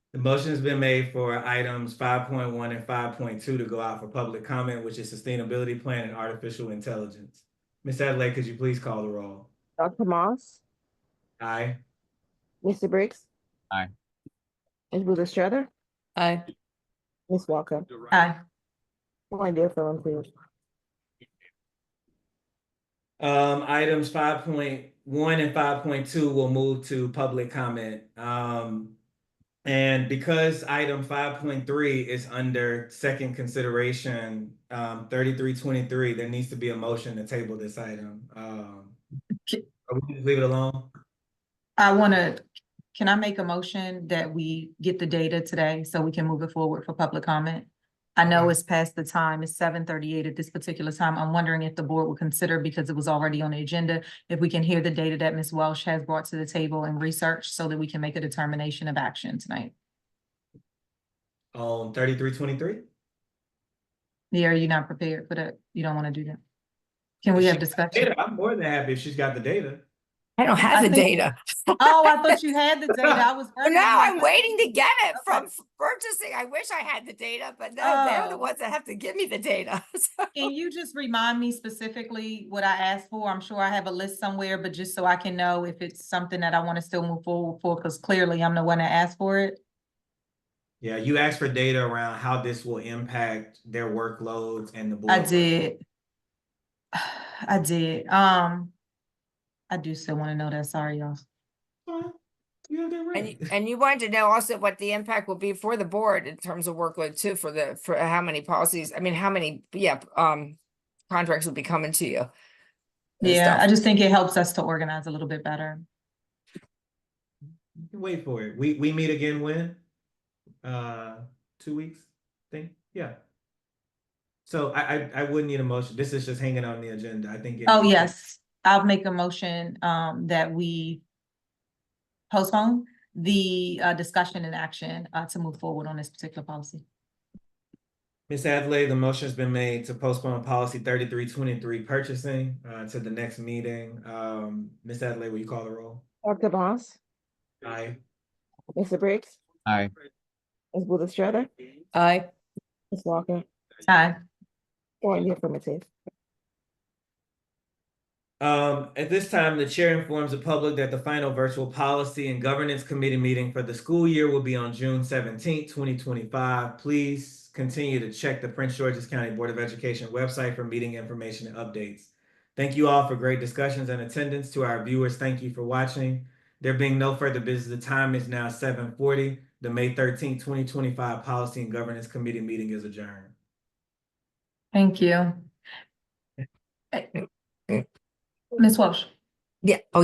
The motion's been made for items five point one and five point two to go out for public comment, which is sustainability plan and artificial intelligence. Ms. Adelaide, could you please call the roll? Dr. Moss, Aye. Mr. Briggs. Aye. Ms. Booth Estrada, Aye. Ms. Walker, Aye. one dear fellow, please. Um, items five point one and five point two will move to public comment. Um, and because item five point three is under second consideration, um, thirty-three twenty-three, there needs to be a motion to table this item. Um, Ki- are we gonna leave it alone? I want to, can I make a motion that we get the data today so we can move it forward for public comment? I know it's past the time, it's seven thirty-eight at this particular time. I'm wondering if the board would consider, because it was already on the agenda, if we can hear the data that Ms. Welsh has brought to the table and research so that we can make a determination of action tonight. On thirty-three twenty-three? Yeah, are you not prepared for that? You don't want to do that? Can we have discussion? Data, I'm more than happy if she's got the data. I don't have I the think- data. Oh, I thought you had the data. I was. Well, working Now on it. I'm waiting to get it Okay. from f- purchasing. I wish I had the data, but no, they're Oh. the ones that have to give me the data. So- Can you just remind me specifically what I asked for? I'm sure I have a list somewhere, but just so I can know if it's something that I want to still move forward for, because clearly I'm the one that asked for it. Yeah, you asked for data around how this will impact their workloads and the board. I did. I did. Um, I do still want to know that. Sorry, y'all. Fine. You have that Hmm. And, right. you- and you wanted to know also what the impact will be for the board in terms of workload too, for the, for how many policies, I mean, how many, yeah, um, contracts will be coming to you. and Yeah, I stuff. just think it helps us to organize a little bit better. You can Wait for it. We, we meet again when? Uh, two weeks, think, yeah. So I, I, I would need a motion. This is just hanging on the agenda. I think. it- Oh, yes, I'll make a motion, um, that we postpone the, uh, discussion and action, uh, to move forward on this particular policy. Ms. Adley, the motion's been made to postpone policy thirty-three twenty-three purchasing, uh, to the next meeting. Um, Ms. Adley, will you call the roll? Dr. Moss, Aye. Mr. Briggs, Aye. Ms. Booth Estrada, Aye. Ms. Walker, Aye. one dear fellow, please. Um, at this time, the chair informs the public that the final virtual policy and governance committee meeting for the school year will be on June seventeenth, twenty twenty-five. Please continue to check the Prince George's County Board of Education website for meeting information and updates. Thank you all for great discussions and attendance. To our viewers, thank you for watching. There being no further business, the time is now seven forty. The May thirteenth, twenty twenty-five Policy and Governance Committee meeting is adjourned. Thank you. Ms. Welsh? Yeah, oh,